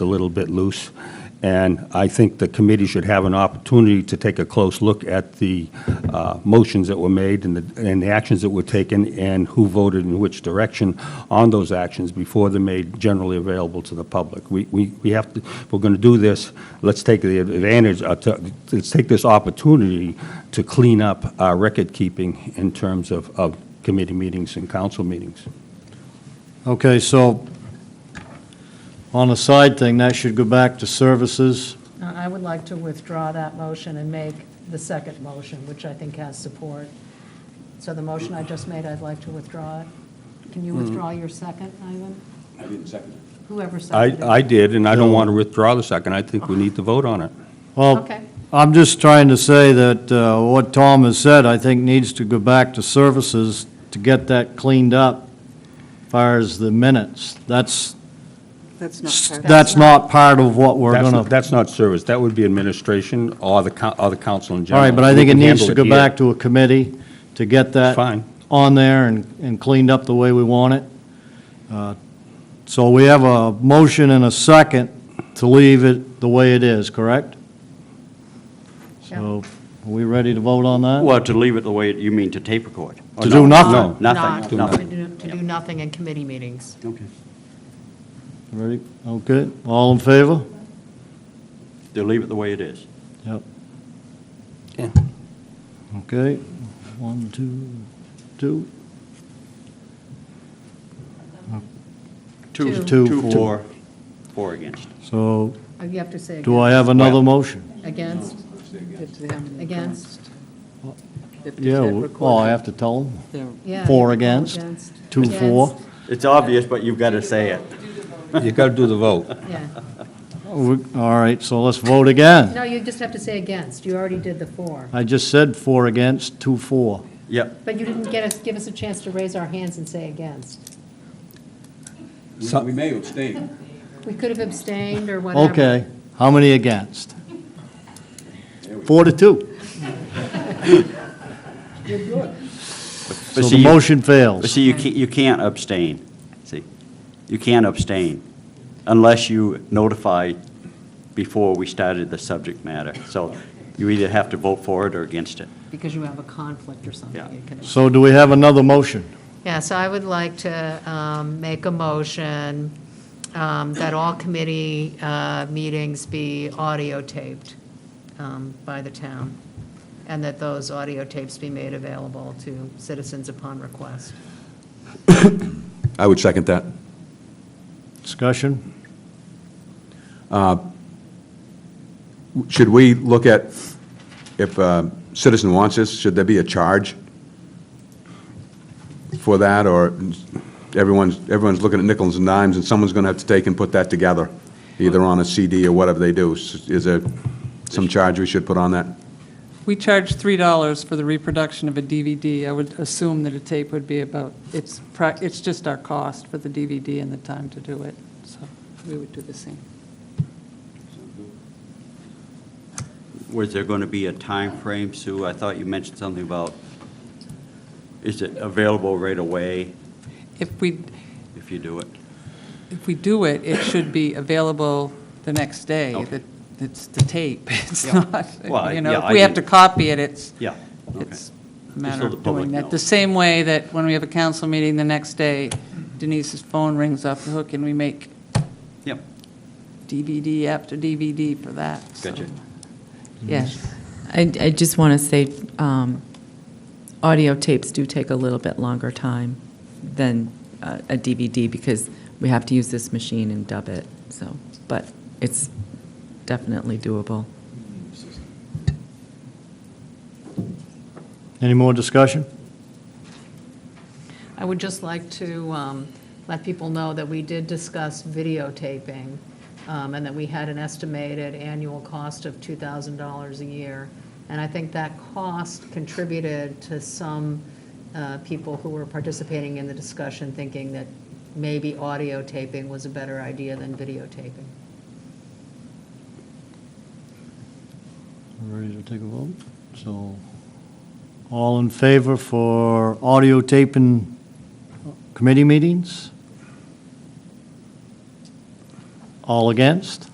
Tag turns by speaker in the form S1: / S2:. S1: a little bit loose. And I think the committee should have an opportunity to take a close look at the uh, motions that were made and the, and the actions that were taken and who voted in which direction on those actions before they're made generally available to the public. We, we, we have to, if we're going to do this, let's take the advantage, uh, to- let's take this opportunity to clean up our record-keeping in terms of, of committee meetings and council meetings.
S2: Okay, so on the side thing, that should go back to services.
S3: Uh, I would like to withdraw that motion and make the second motion, which I think has support. So the motion I just made, I'd like to withdraw it. Can
S2: Mm-hmm.
S3: you withdraw your second, Ivan?
S1: I didn't second it.
S3: Whoever
S1: I,
S3: seconded.
S1: I
S3: it.
S1: did, and I don't want to withdraw the second. I think we need to vote on it.
S2: Well,
S3: Okay.
S2: I'm just trying to say that uh, what Tom has said, I think, needs to go back to services to get that cleaned up as far as the minutes. That's,
S4: That's not part of
S2: that's not part of what we're
S1: That's,
S2: going to...
S1: not- that's not service, that would be administration or the, coun- or the council in
S2: All
S1: general.
S2: right, but I
S1: We
S2: think it
S1: can
S2: needs
S1: handle
S2: to go
S1: here.
S2: back to a committee to get that
S1: Fine.
S2: on there and, and cleaned up the way we want it. Uh, So we have a motion and a second to leave it the way it is, correct? So, are we ready to vote on that?
S5: Well, to leave it the way, it- you mean to tape record?
S2: To do nothing?
S5: Nothing,
S3: Not-
S5: nothing.
S3: To do- to do nothing in committee meetings.
S5: Okay.
S2: Ready? Okay, all in favor?
S5: To leave it the way it is.
S2: Yep.
S1: Yeah.
S2: Okay, one, two, two.
S3: Two.
S2: Two,
S5: Two
S2: four.
S5: for, four against.
S2: So,
S3: Uh, You have to say
S2: do I have another motion?
S3: against. Against?
S4: it. Them
S3: Against?
S4: if it's
S2: Yeah,
S4: not
S2: we-
S4: recorded,
S2: oh, I have to tell them?
S4: they're-
S3: Yeah,
S2: Four
S3: you're
S2: against, two
S3: Against.
S2: for.
S5: It's obvious, but you've got to say it.
S1: You got to do the vote.
S3: Yeah.
S2: Oh, We- All right, so let's vote again.
S3: No, you just have to say against. You already did the four.
S2: I just said four against, two for.
S5: Yep.
S3: But you didn't get us, give us a chance to raise our hands and say against.
S1: So-
S6: We may abstain.
S3: We could have abstained or whatever.
S2: Okay, how many against? Four to two. So
S5: But
S2: the
S5: see, you-
S2: motion fails.
S5: But see, you can't, you can't abstain, see? You can't abstain unless you notify before we started the subject matter. So you either have to vote for it or against it.
S3: Because you have a conflict or something.
S5: Yeah.
S3: you can-
S2: So do we have another motion?
S3: Yeah, so I would like to um, make a motion um, that all committee uh, meetings be audio taped um, by the town, and that those audio tapes be made available to citizens upon request.
S6: I would second that.
S2: Discussion?
S6: Should we look at, if a citizen wants this, should there be a charge for that, or everyone's, everyone's looking at nickels and dimes, and someone's going to have to take and put that together, either on a CD or whatever they do? S- Is there some charge we should put on that?
S7: We charge $3 for the reproduction of a DVD. I would assume that a tape would be about, it's, prac- it's just our cost for the DVD and the time to do it, so we would do the same.
S5: Was there going to be a time frame, Sue? I thought you mentioned something about, is it available right away
S7: If we,
S5: if you do it?
S7: if we do it, it should be available the next day.
S5: Okay.
S7: That- It's the tape, it's
S5: Yeah.
S7: not,
S5: Well,
S7: you know,
S5: yeah,
S7: if
S5: I
S7: we have to
S5: didn't-
S7: copy it, it's,
S5: Yeah, okay.
S7: it's a matter
S5: so the
S7: of
S5: public
S7: doing that. The
S5: knows.
S7: same way that when we have a council meeting the next day, Denise's phone rings off the hook and we make
S5: Yep,
S7: DVD after DVD for that. so-
S5: gotcha.
S7: Yes.
S8: I, I just want to say, um, audio tapes do take a little bit longer time than uh, a DVD because we have to use this machine and dub it, so, but it's definitely doable.
S2: Any more discussion?
S3: I would just like to um, let people know that we did discuss videotaping, um, and that we had an estimated annual cost of $2,000 a year. And I think that cost contributed to some uh, people who were participating in the discussion thinking that maybe audio taping was a better idea than videotaping.
S2: We're Ready to take a vote? So, all in favor for audio taping committee meetings? All against?